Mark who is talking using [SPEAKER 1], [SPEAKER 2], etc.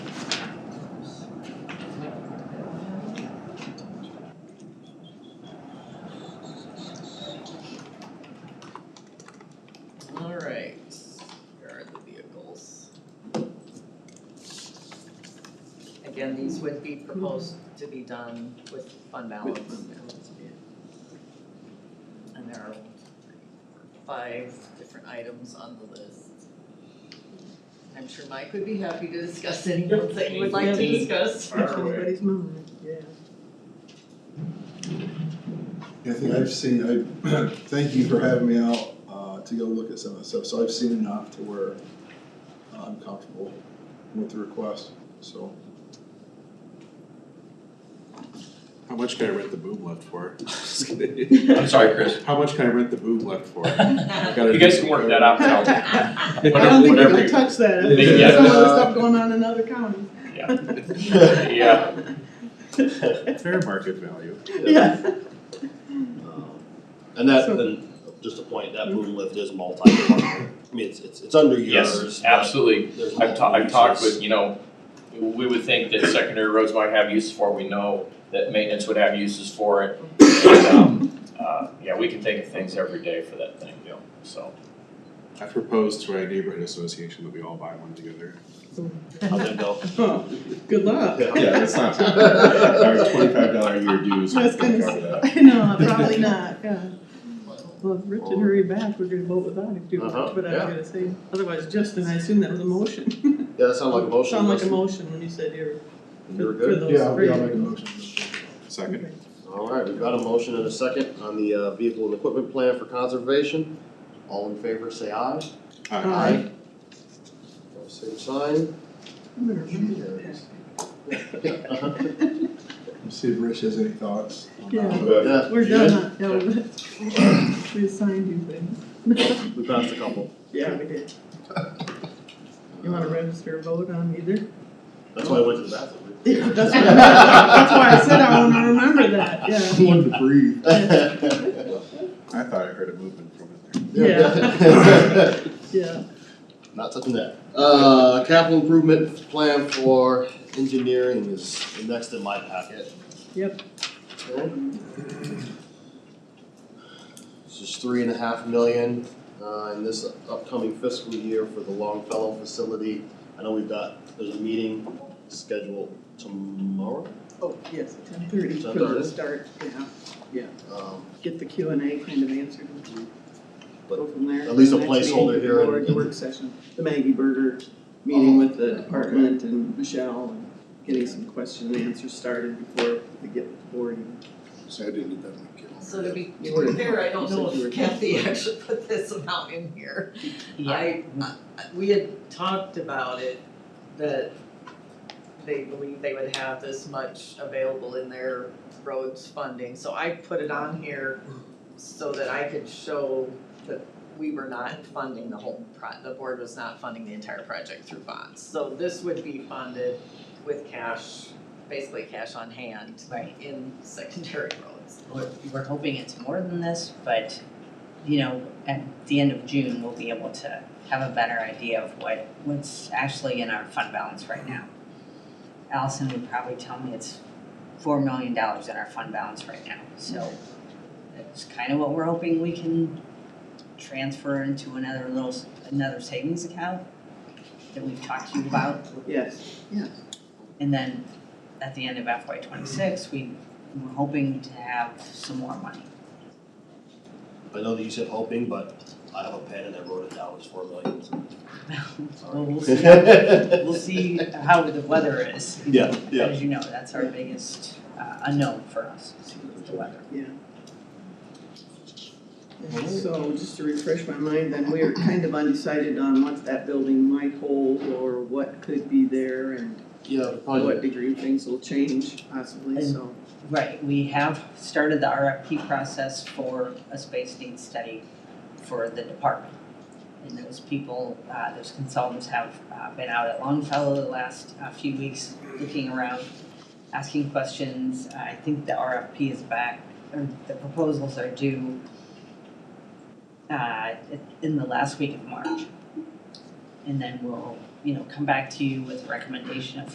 [SPEAKER 1] Again, these would be proposed to be done with fund balance. And there are five different items on the list. I'm sure Mike would be happy to discuss any ones that you would like to discuss.
[SPEAKER 2] Fire away.
[SPEAKER 3] mind, yeah.
[SPEAKER 4] I think I've seen, I, thank you for having me out, uh, to go look at some of the stuff, so I've seen enough to where I'm comfortable with the request, so.
[SPEAKER 5] How much can I rent the boob left for? Just kidding.
[SPEAKER 2] I'm sorry, Chris.
[SPEAKER 5] How much can I rent the boob left for?
[SPEAKER 2] You guys can work that out, tell me.
[SPEAKER 3] I don't think
[SPEAKER 2] Whatever
[SPEAKER 3] they're gonna
[SPEAKER 2] you-
[SPEAKER 3] touch that,
[SPEAKER 2] They-
[SPEAKER 3] there's
[SPEAKER 2] yeah.
[SPEAKER 3] some other stuff going on in other counties.
[SPEAKER 2] Yeah.
[SPEAKER 5] Fair market value.
[SPEAKER 3] Yeah.
[SPEAKER 6] Um, And that,
[SPEAKER 3] So-
[SPEAKER 6] then, just a point, that boom lift is multi-pronged, I mean, it's, it's, it's under yours,
[SPEAKER 2] Yes,
[SPEAKER 6] but
[SPEAKER 2] absolutely.
[SPEAKER 6] there's
[SPEAKER 2] I've
[SPEAKER 6] multiple
[SPEAKER 2] talked, I've talked
[SPEAKER 6] uses.
[SPEAKER 2] with, you know, we would think that secondary roads might have uses for, it. we know that maintenance would have uses for it. And, um, uh, yeah, we can think of things every day for that thing, Bill, so.
[SPEAKER 5] I proposed to our neighborhood association that we all buy one together.
[SPEAKER 6] How'd that go?
[SPEAKER 3] Huh. Good luck.
[SPEAKER 5] Yeah, that's not, our twenty-five dollar a year dues.
[SPEAKER 3] I was gonna
[SPEAKER 5] cover that.
[SPEAKER 3] I know, probably not, yeah.
[SPEAKER 1] Well,
[SPEAKER 3] Well, if Rich and hurry back, we're gonna vote without him, do,
[SPEAKER 6] Uh-huh,
[SPEAKER 3] but I was
[SPEAKER 6] yeah.
[SPEAKER 3] gonna say, otherwise Justin, I assume that was a motion.
[SPEAKER 6] Yeah, that sounded like a motion.
[SPEAKER 3] Sound like a
[SPEAKER 6] Dustin.
[SPEAKER 3] motion when you said you're,
[SPEAKER 6] You were
[SPEAKER 3] for
[SPEAKER 6] good.
[SPEAKER 3] those
[SPEAKER 4] Yeah, I'll
[SPEAKER 3] three.
[SPEAKER 4] I'll make a motion.
[SPEAKER 5] Second.
[SPEAKER 3] Okay.
[SPEAKER 6] All right, we've got a motion and a second on the, uh, vehicle and equipment plan for conservation. All in favor, say aye.
[SPEAKER 5] Aye.
[SPEAKER 3] Aye.
[SPEAKER 6] All Same sign.
[SPEAKER 3] I'm gonna remember that.
[SPEAKER 4] Let's See if Rich has any thoughts on that.
[SPEAKER 3] Yeah.
[SPEAKER 6] Yeah,
[SPEAKER 3] We're
[SPEAKER 6] you
[SPEAKER 3] done, yeah, we- we assigned you things.
[SPEAKER 6] good? We passed a couple.
[SPEAKER 3] Yeah, we did. You wanna register a vote on either?
[SPEAKER 6] That's why I went to the bathroom.
[SPEAKER 3] That's why, that's why I said I wanna remember that, yeah.
[SPEAKER 4] I wanted to breathe.
[SPEAKER 5] I thought I heard a movement from it there.
[SPEAKER 3] Yeah. Yeah,
[SPEAKER 6] Not touching that. Uh, capital improvement plan for engineering is next in my packet.
[SPEAKER 3] Yep.
[SPEAKER 6] Okay. This is three and a half million, uh, in this upcoming fiscal year for the Longfellow facility. I know we've got, there's a meeting scheduled tomorrow,
[SPEAKER 3] oh, yes, ten thirty for the
[SPEAKER 6] 10:30?
[SPEAKER 3] start, yeah,
[SPEAKER 6] um,
[SPEAKER 3] get the Q and A kind of answered. Go from there.
[SPEAKER 6] Mm-hmm. At least a
[SPEAKER 3] The next meeting,
[SPEAKER 6] placeholder here and-
[SPEAKER 3] board Work session, the Maggie Berger meeting with the department and Michelle and getting some question and answers started before we get with the board.
[SPEAKER 4] So I didn't get that in my calendar.
[SPEAKER 1] So to be,
[SPEAKER 3] You were-
[SPEAKER 1] to be fair, I don't know
[SPEAKER 3] you said you were-
[SPEAKER 1] if Kathy actually put this amount in here. I, I- we had talked about it, that they believe they would have this much available in their roads funding, so I put it on here so that I could show that we were not funding the whole pro, the board was not funding the entire project through bonds. So this would be funded with cash, basically cash on hand
[SPEAKER 7] Right,
[SPEAKER 1] in secondary roads.
[SPEAKER 7] we're, we're hoping it's more than this, but, you know, at the end of June, we'll be able to have a better idea of what, what's actually in our fund balance right now. Allison would probably tell me it's four million dollars in our fund balance right now, so that's kind of what we're hoping we can transfer into another little, s- another savings account that we've talked to you about.
[SPEAKER 3] Yes, yes.
[SPEAKER 7] And then at the end of FY twenty-six, we were hoping to have some more money.
[SPEAKER 6] I know that you said hoping, but I have a pen and I wrote it down, it's four million.
[SPEAKER 7] Oh, Well, we'll see,
[SPEAKER 6] Sorry.
[SPEAKER 7] we'll see how the weather is.
[SPEAKER 6] Yeah, yeah.
[SPEAKER 7] As you know, that's our biggest uh, unknown for us, is the weather.
[SPEAKER 3] And So just to refresh my mind, then we're kind of undecided on what that building might hold or what could be there and
[SPEAKER 6] Yeah,
[SPEAKER 3] to
[SPEAKER 6] probably.
[SPEAKER 3] what degree things will change possibly, so.
[SPEAKER 7] Right, we have started the RFP process for a space needs study for the department. And those people, uh, those consultants have uh, been out at Longfellow the last uh, few weeks, looking around, asking questions. I think the RFP is back, or the proposals are due uh, in the last week of March. And then we'll, you know, come back to you with a recommendation of